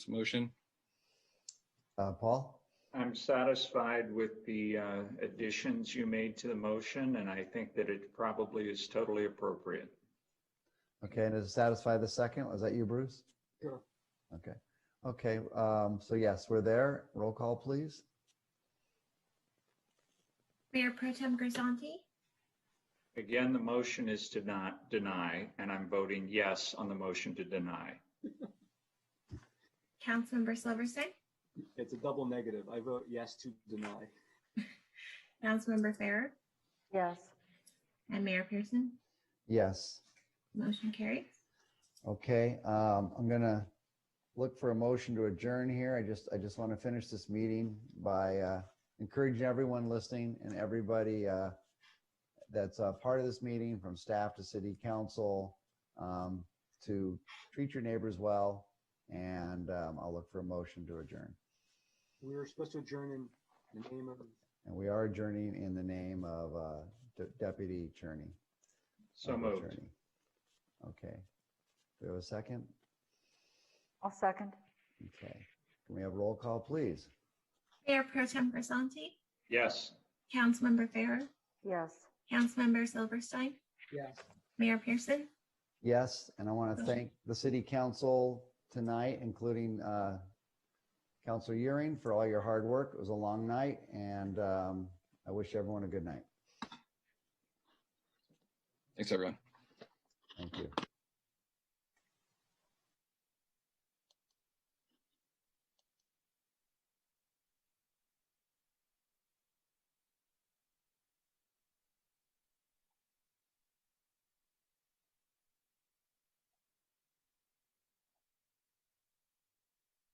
motion? Uh, Paul? I'm satisfied with the uh, additions you made to the motion, and I think that it probably is totally appropriate. Okay, and does it satisfy the second? Was that you, Bruce? Sure. Okay, okay, um, so yes, we're there. Roll call, please. Mayor Pro Tem Grisanti, Again, the motion is to not deny, and I'm voting yes on the motion to deny. Councilmember Silverston, It's a double negative. I vote yes to deny. Councilmember Farrer, Yes. and Mayor Pearson. Yes, Motion carries. okay, um, I'm gonna look for a motion to adjourn here. I just, I just want to finish this meeting by, uh, encouraging everyone listening and everybody, uh, that's a part of this meeting, from staff to city council, um, to treat your neighbors well, and, um, I'll look for a motion to adjourn. We were supposed to adjourn in the name of, And we are adjourning in the name of uh, De- Deputy Cherney. So of moved. Cherney. Okay. Do we have a second? I'll second. Okay. Can we have roll call, please? Mayor Pro Tem Grisanti, Yes. Councilmember Farrer, Yes. Councilmember Silverstein, yes. Mayor Pearson. Yes, and I want to thank the city council tonight, including uh, Counselor Euring for all your hard work. It was a long night, and um, I wish everyone a good night. Thanks, everyone. Thank you.